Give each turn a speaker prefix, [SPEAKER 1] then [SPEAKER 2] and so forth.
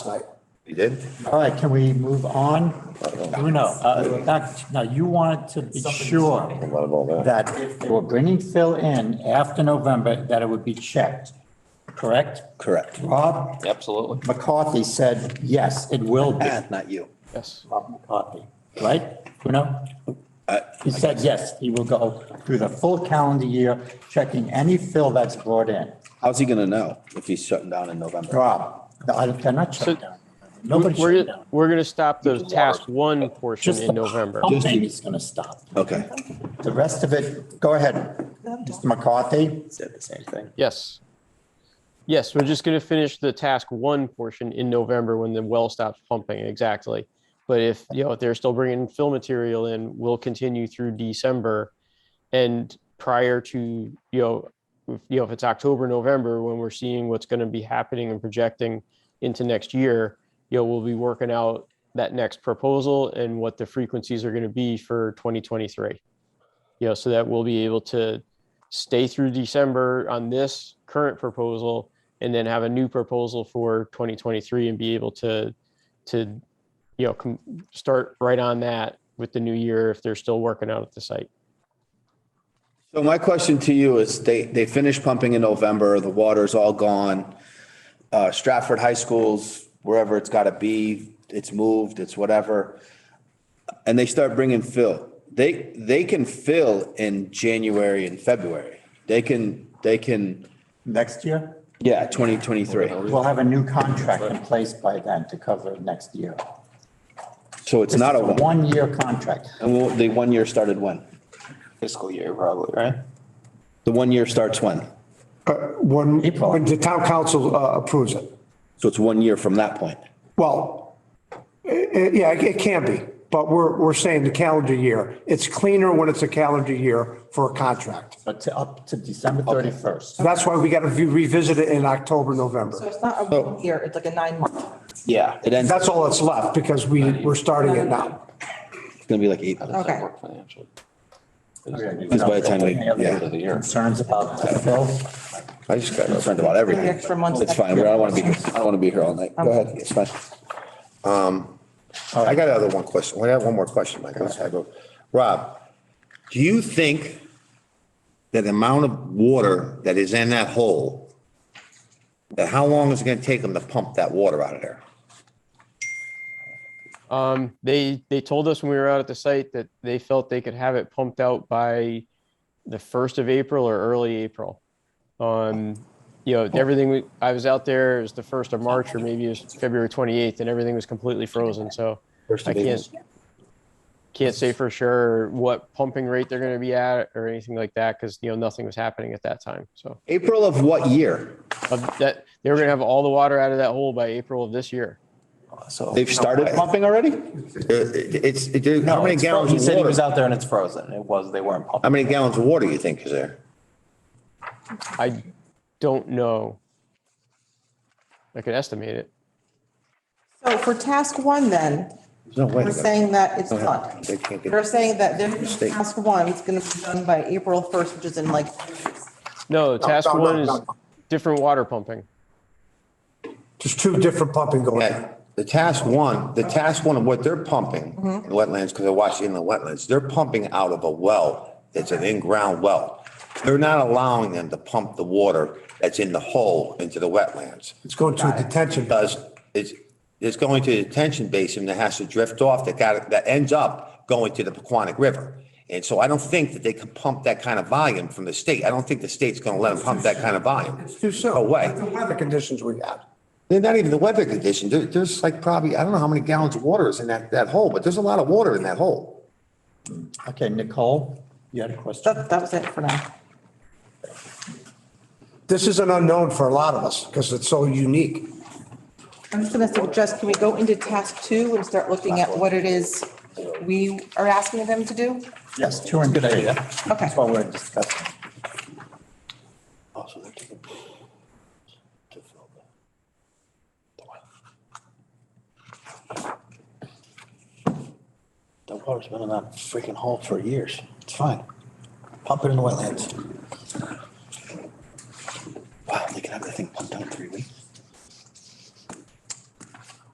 [SPEAKER 1] You did?
[SPEAKER 2] All right, can we move on? Bruno, uh, not- now you wanted to be sure
[SPEAKER 1] A lot of all that.
[SPEAKER 2] that if they were bringing Phil in after November, that it would be checked, correct?
[SPEAKER 3] Correct.
[SPEAKER 2] Rob
[SPEAKER 4] Absolutely.
[SPEAKER 2] McCarthy said, yes, it will be,
[SPEAKER 3] Pat, not you.
[SPEAKER 4] Yes.
[SPEAKER 2] Rob McCarthy, right? Bruno? He said, yes, he will go through the full calendar year, checking any fill that's brought in.
[SPEAKER 3] How's he gonna know if he's shutting down in November?
[SPEAKER 2] Rob, I- they're not shut down. Nobody
[SPEAKER 5] We're,
[SPEAKER 2] shut down.
[SPEAKER 5] we're gonna stop the task one portion
[SPEAKER 2] Just the
[SPEAKER 5] in November.
[SPEAKER 2] pumping is going to stop.
[SPEAKER 3] Okay.
[SPEAKER 2] The rest of it, go ahead, Mr. McCarthy.
[SPEAKER 3] Said the same thing.
[SPEAKER 5] Yes. Yes, we're just gonna finish the task one portion in November when the well stops pumping, exactly. But if, you know, if they're still bringing fill material in, we'll continue through December. And prior to, you know, if, you know, if it's October, November, when we're seeing what's gonna be happening and projecting into next year, you know, we'll be working out that next proposal and what the frequencies are gonna be for twenty twenty-three. You know, so that we'll be able to stay through December on this current proposal and then have a new proposal for 2023 and be able to, to, you know, com- start right on that with the new year if they're still working out at the site.
[SPEAKER 3] So my question to you is, they, they finished pumping in November, the water's all gone. Uh, Stratford High School's wherever it's gotta be, it's moved, it's whatever. And they start bringing fill. They, they can fill in January and February. They can, they can,
[SPEAKER 2] Next year,
[SPEAKER 3] yeah, twenty twenty-three.
[SPEAKER 2] we'll have a new contract in place by then to cover next year.
[SPEAKER 3] So it's not a
[SPEAKER 2] This is
[SPEAKER 3] one.
[SPEAKER 2] One-year contract.
[SPEAKER 3] And we'll- the one year started when?
[SPEAKER 4] Fiscal year probably, right?
[SPEAKER 3] The one year starts when?
[SPEAKER 6] Uh, When,
[SPEAKER 2] April.
[SPEAKER 6] when the town council uh, approves it.
[SPEAKER 3] So it's one year from that point.
[SPEAKER 6] Well, i- i- yeah, it can be, but we're, we're saying the calendar year. It's cleaner when it's a calendar year for a contract.
[SPEAKER 2] But to up to December 31st.
[SPEAKER 6] That's why we got to revisit it in October,
[SPEAKER 7] So
[SPEAKER 6] November.
[SPEAKER 7] it's not a one year, it's like a nine month.
[SPEAKER 3] Yeah. It ends,
[SPEAKER 6] That's all that's left because we, we're starting it now.
[SPEAKER 3] it's gonna be like eight.
[SPEAKER 4] How does that
[SPEAKER 7] Okay.
[SPEAKER 4] work financially?
[SPEAKER 3] It's by the time we-
[SPEAKER 2] Any other
[SPEAKER 3] yeah.
[SPEAKER 2] Concerns about the fill?
[SPEAKER 3] I just got concerned about everything.
[SPEAKER 7] Extra months.
[SPEAKER 3] It's fine. I don't want to be, I don't want to be here all night. Go ahead. It's fine.
[SPEAKER 1] Um, I got another one question. I got one more question, Mike. Let's have a- Rob, do you think that the amount of water that is in that hole, that how long is it gonna take them to pump that water out of there?
[SPEAKER 5] Um, they, they told us when we were out at the site that they felt they could have it pumped out by the first of April or early April. Um, you know, everything, we I was out there, it was the first of March or maybe it was February 28th and everything was completely frozen, so. I can't, can't say for sure what pumping rate they're gonna be at or anything like that, because, you know, nothing was happening at that time, so.
[SPEAKER 3] April of what year?
[SPEAKER 5] Of that, they were gonna have all the water out of that hole by April of this year.
[SPEAKER 4] So.
[SPEAKER 3] They've started pumping already?
[SPEAKER 1] It- It's, it- how many gallons
[SPEAKER 4] He
[SPEAKER 1] of
[SPEAKER 4] said he was
[SPEAKER 1] water?
[SPEAKER 4] out there and it's frozen. It was, they weren't
[SPEAKER 1] How
[SPEAKER 3] Um,
[SPEAKER 4] pumping.
[SPEAKER 1] many gallons of water you think is there?
[SPEAKER 5] I don't know. I could estimate it.
[SPEAKER 7] So for task one then,
[SPEAKER 1] There's no way.
[SPEAKER 7] we're saying that it's done.
[SPEAKER 1] They can't get-
[SPEAKER 7] They're saying that their
[SPEAKER 1] Mistake.
[SPEAKER 7] task one is going to be done by April 1st, which is in like,
[SPEAKER 5] No, task
[SPEAKER 6] no, no,
[SPEAKER 5] one is
[SPEAKER 6] no.
[SPEAKER 5] different water pumping.
[SPEAKER 6] There's two different pumping going on.
[SPEAKER 1] Yeah, the task one, the task one of what they're pumping in wetlands, because I watch inland wetlands, they're pumping out of a well. It's an in-ground well. They're not allowing them to pump the water that's in the hole into the wetlands.
[SPEAKER 6] It's going to a detention.
[SPEAKER 1] Because it's, it's going to the detention basin that has to drift off, that got, that ends up going to the Paquonic River. And so I don't think that they can pump that kind of volume from the state. I don't think the state's going to let them pump that kind of volume.
[SPEAKER 6] It's too soon.
[SPEAKER 1] No way.
[SPEAKER 6] The weather conditions we had.
[SPEAKER 1] They're not even the weather condition. There, there's like probably, I don't know how many gallons of water is in that, that hole, but there's a lot of water in that hole.
[SPEAKER 2] Okay, Nicole, you had a question?
[SPEAKER 7] that, that was it for now.
[SPEAKER 6] This is an unknown for a lot of us because it's so unique.
[SPEAKER 7] I'm just going to suggest, can we go into task two and start looking at what it is we are asking them to do?
[SPEAKER 2] Yes, two and three.
[SPEAKER 7] Okay.
[SPEAKER 2] That's what we're discussing.
[SPEAKER 8] That water's been in that freaking hole for years. It's fine. Pump it in the wetlands.